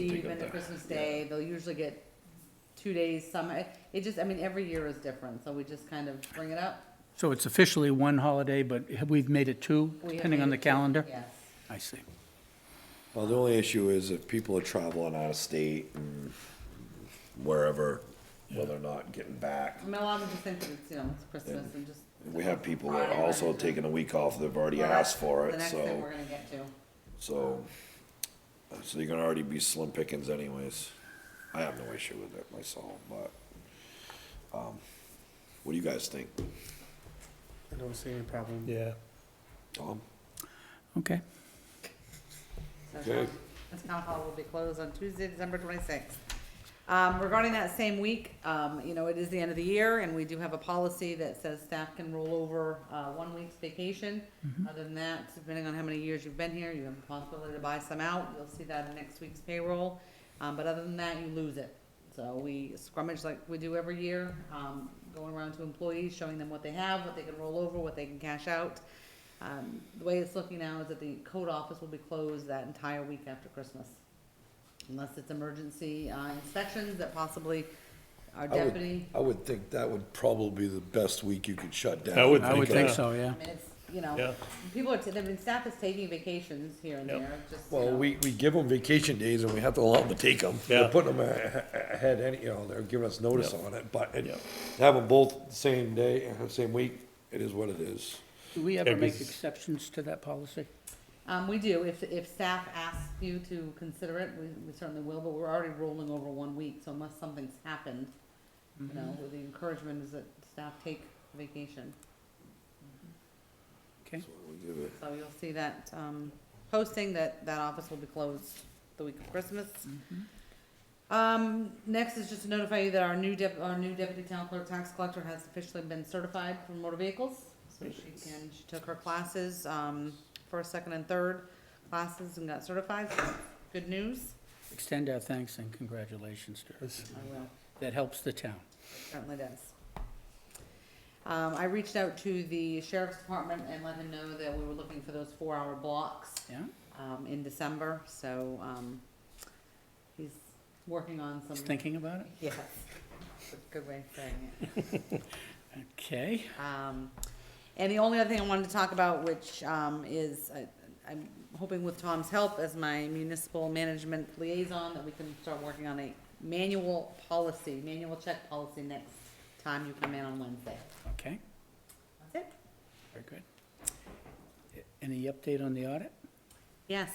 it, the Christmas day, they'll usually get two days, some, it just, I mean, every year is different, so we just kind of bring it up. So it's officially one holiday, but have- we've made it two, We have depending on the made it- calendar? Yes, I see. Well, the only issue is if people are traveling out of state and wherever, well, they're not getting back. I mean, a lot of them just think that it's, you know, it's Christmas and just. We have people that are also taking a week off, they've already asked for The it, next thing we're so, gonna get to. so, so you're gonna already be slim pickings anyways. I have no issue with it myself, but, um, what do you guys think, I don't see any problem. Yeah. Tom? Okay. So Okay. town- This town hall will be closed on Tuesday, December twenty-sixth. Um, regarding that same week, um, you know, it is the end of the year, and we do have a policy that says staff can roll over, uh, one week's vacation. Other than that, depending on how many years you've been here, you have the possibility to buy some out, you'll see that in next week's payroll. Um, but other than that, you lose it. So we scrummage like we do every year, um, going around to employees, showing them what they have, what they can roll over, what they can cash out. Um, the way it's looking now is that the code office will be closed that entire week after Christmas. Unless it's emergency, uh, inspections that possibly our I would- deputy, I would think that would probably be the best week you could shut down. I would I would think uh, so, yeah. I mean, it's, you know, Yeah. people are, ta- I mean, staff is taking vacations here and Yep. there, it's just, you Well, know. we, we give them vacation days and we have to allow them to take them. Yeah. They're putting them ahead, any, you know, they're giving us notice Yeah. on it, but it- Yeah. have them both same day, uh, same week, it is what it is. Do we ever make because- exceptions to that policy? Um, we do, if, if staff asks you to consider it, we, we certainly will, but we're already rolling over one week, so unless something's happened, you Mm-hmm. know, the encouragement is that staff take vacation. Okay. So you'll see that, um, posting that, that office will be closed the week of Christmas. Mm-hmm. Um, next is just to notify you that our new dep- our new deputy town clerk tax collector has officially been certified for motor vehicles. So she can, she took her classes, um, first, second, and third classes and got certified, so good news. Extend our thanks and congratulations to her. I will. That helps the town. Certainly does. Um, I reached out to the sheriff's department and let him know that we were looking for those four-hour blocks, Yeah? um, in December, so, um, he's working on some. Just thinking about it? Yes, that's a good way of saying it. Okay. Um, and the only other thing I wanted to talk about, which, um, is, I, I'm hoping with Tom's help as my municipal management liaison, that we can start working on a manual policy, manual check policy next time you come in on Wednesday. Okay, That's it? very good. Any update on the audit? Yes.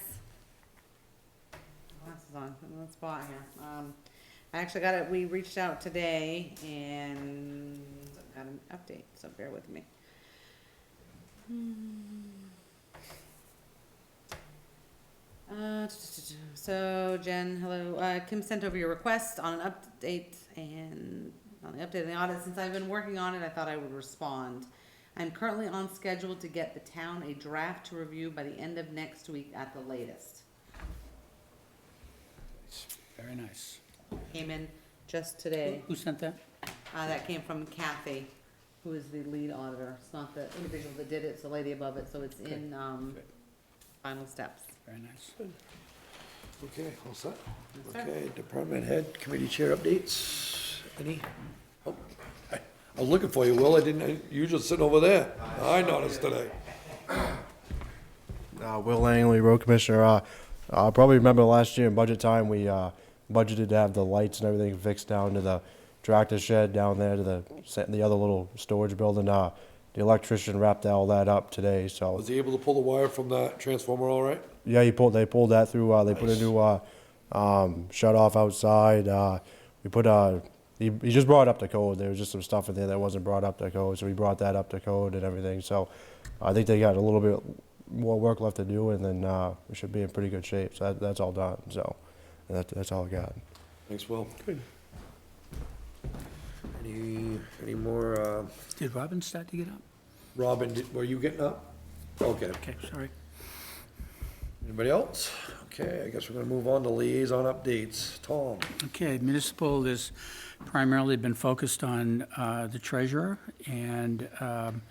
Glasses on, I'm in the spot here. Um, I actually got it, we reached out today and got an update, so bear with me. Uh, so Jen, hello, uh, Kim sent over your request on an update and on the update on the audit, since I've been working on it, I thought I would respond. I'm currently on schedule to get the town a draft to review by the end of next week at the latest. Very nice. Came in just today. Who sent that? Uh, that came from Kathy, who is the lead auditor. It's not the individual that did it, it's the lady above it, so it's in, um, final steps. Very nice. Okay, all set? Yes, sir. Okay, department head, committee chair updates, any? Oh, I I was looking for you, Will, I didn't, I- you were just sitting over there, I noticed today. Uh, Will Langley, Road Commissioner. Uh, I probably remember last year in budget time, we uh, budgeted to have the lights and everything fixed down to the tractor shed down there to the set- the other little storage building. Uh, the electrician wrapped all that up today. So Was he able to pull the wire from that transformer all right? yeah, he pulled. They pulled that through. Uh, they put a new uh, um, shut off outside. Uh, we put. Uh, he, he just brought up the code. There was just some stuff in there that wasn't brought up to code, so we brought that up to code and everything. So I think they got a little bit more work left to do, and then uh, we should be in pretty good shape. So that, that's all done. So that, that's all I got. Thanks, Will. Good. Any, any more, uh, Did Robin start to get up? Robin, did- were you getting up? Okay, Okay, sorry. anybody else? Okay, I guess we're gonna move on to liaison updates. Tom? Okay, municipal has primarily been focused on uh, the treasurer, and um,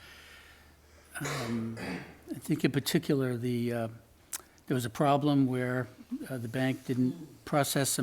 um, I think in particular, the, uh, there was a problem where uh, the bank didn't process some